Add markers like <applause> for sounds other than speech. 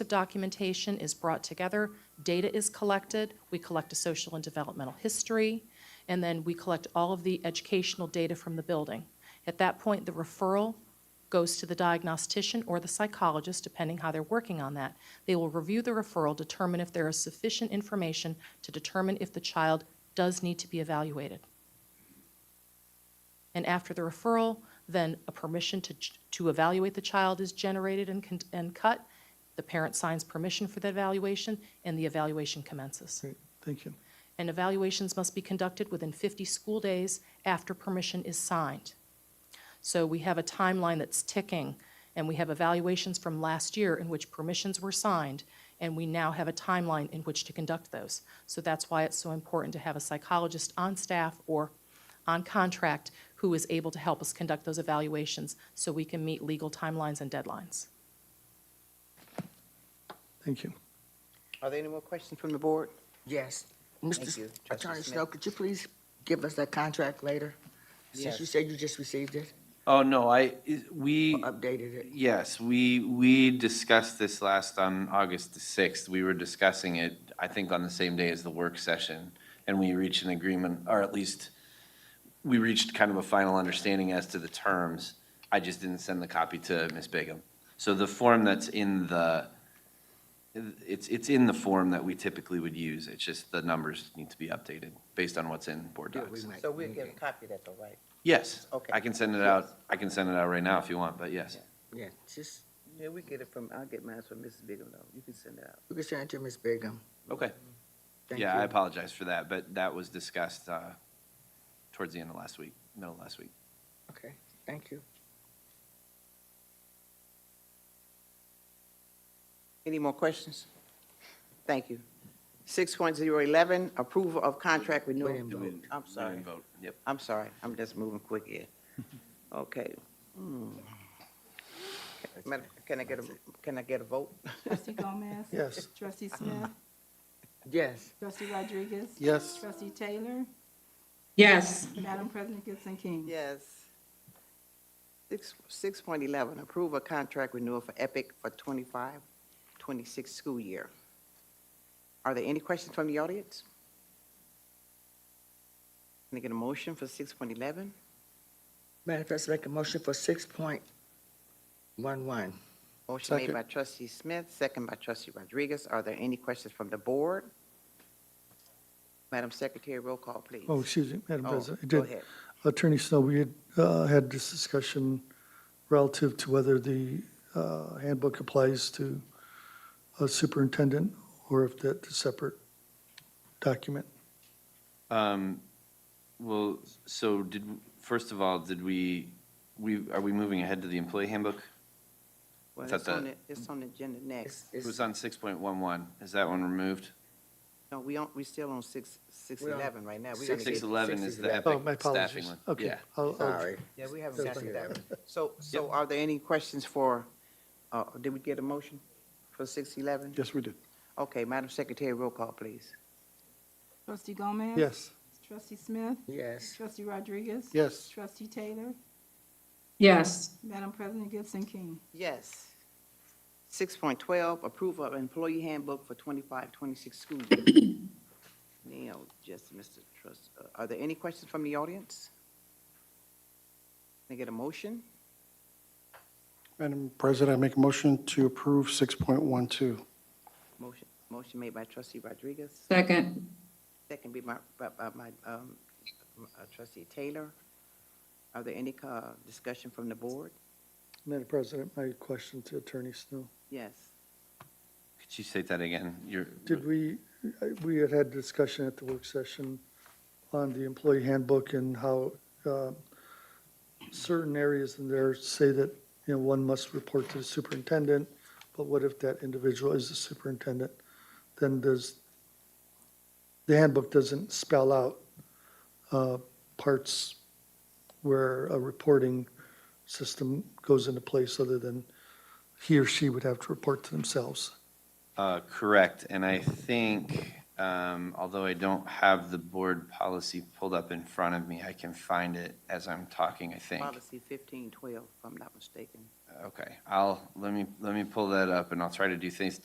The documentation is brought together, data is collected, we collect a social and developmental history, and then we collect all of the educational data from the building. At that point, the referral goes to the diagnostician or the psychologist, depending how they're working on that. They will review the referral, determine if there is sufficient information to determine if the child does need to be evaluated. And after the referral, then a permission to, ch- to evaluate the child is generated and, con- and cut. The parent signs permission for the evaluation, and the evaluation commences. Great, thank you. And evaluations must be conducted within 50 school days after permission is signed. So we have a timeline that's ticking, and we have evaluations from last year in which permissions were signed, and we now have a timeline in which to conduct those. So that's why it's so important to have a psychologist on staff or on contract who is able to help us conduct those evaluations so we can meet legal timelines and deadlines. Thank you. Are there any more questions from the board? Yes. Thank Mr. you, S- Justice Attorney Smith. Snow, could you please give us that contract later? Since you Yes. said you just received it, Oh, no, I, is- or we, updated it. yes, we, we discussed this last on August the 6th. We were discussing it, I think, on the same day as the work session. And we reached an agreement, or at least, we reached kind of a final understanding as to the terms. I just didn't send the copy to Ms. Bigum. So the form that's in the, it's, it's in the form that we typically would use. It's just the numbers need to be updated based on what's in board Yeah, we docs. might So we'll need get a it. copy of that though, right? Yes. Okay. I can send it out, I can send it out right now if you want, but yes. Yeah, just, Yeah, we get it from, I'll get mine from Mrs. Bigelow. You can send it out. you can send it to Ms. Bigum. Okay. Thank Yeah, I you. apologize for that, but that was discussed uh, towards the end of last week, middle of last week. Okay, thank you. Any more questions? Thank you. Six point zero eleven, approval of contract renewal. We didn't vote. I'm We sorry, didn't vote. Yep. I'm sorry, I'm just moving quick here. Okay. Hmm. Madam- Can I get a, can I get a vote? Trustee Gomez? Yes. Trustee Smith? Yes, Trustee Rodriguez? Yes. Trustee Taylor? Yes, Madam President Gibson King? Yes. Six, six point eleven, approve a contract renewal for Epic for 25-26 school year. Are there any questions from the audience? Can I get a motion for six point eleven? Madam President, make a motion for six point one one. Motion made Second. by trustee Smith, second by trustee Rodriguez. Are there any questions from the board? Madam Secretary, roll call, please. Oh, excuse me, Madam Oh, President. I Go did- ahead. Attorney Snow, we had, uh, had this discussion relative to whether the, uh, handbook applies to a superintendent or if that's a separate document. Um, Well, so did, first of all, did we, we, are we moving ahead to the employee handbook? Well, Is that it's on the- the, it's on the agenda next. It was on 6.11. Is that one removed? No, we don't, we still on six, six We're on eleven right now. We're gonna Six- get- 6.11 is the 6.11. Oh, Epic my staffing apologies. one. Okay. Yeah. I'll- I'll- Sorry. Yeah, we haven't Six got to point that. eleven. So, so are there any questions for, uh, did we get a motion for six eleven? Yes, we did. Okay, Madam Secretary, roll call, please. Trustee Gomez? Yes, Trustee Smith? Yes, Trustee Rodriguez? Yes. Trustee Taylor? yes, Madam President Gibson King? Yes. Six point twelve, approval of employee handbook for 25-26 school year. <coughs> Now, just, Mr. Trust, uh, are there any questions from the audience? Can I get a motion? Madam President, I make a motion to approve 6.12. Motion, motion made by trustee Rodriguez, second, second be my, by, by my, um, uh, trustee Taylor. Are there any, uh, discussion from the board? Madam President, my question to Attorney Snow. Yes. Could you say that again? You're, Did we, we had had discussion at the work session on the employee handbook and how uh, certain areas in there say that, you know, one must report to the superintendent, but what if that individual is the superintendent? Then does, the handbook doesn't spell out uh, parts where a reporting system goes into place other than he or she would have to report to themselves. Uh, Correct, and I think, um, although I don't have the board policy pulled up in front of me, I can find it as I'm talking, I think. Policy fifteen twelve, if I'm not mistaken. Okay, I'll, let me, let me pull that up, and I'll try to do things,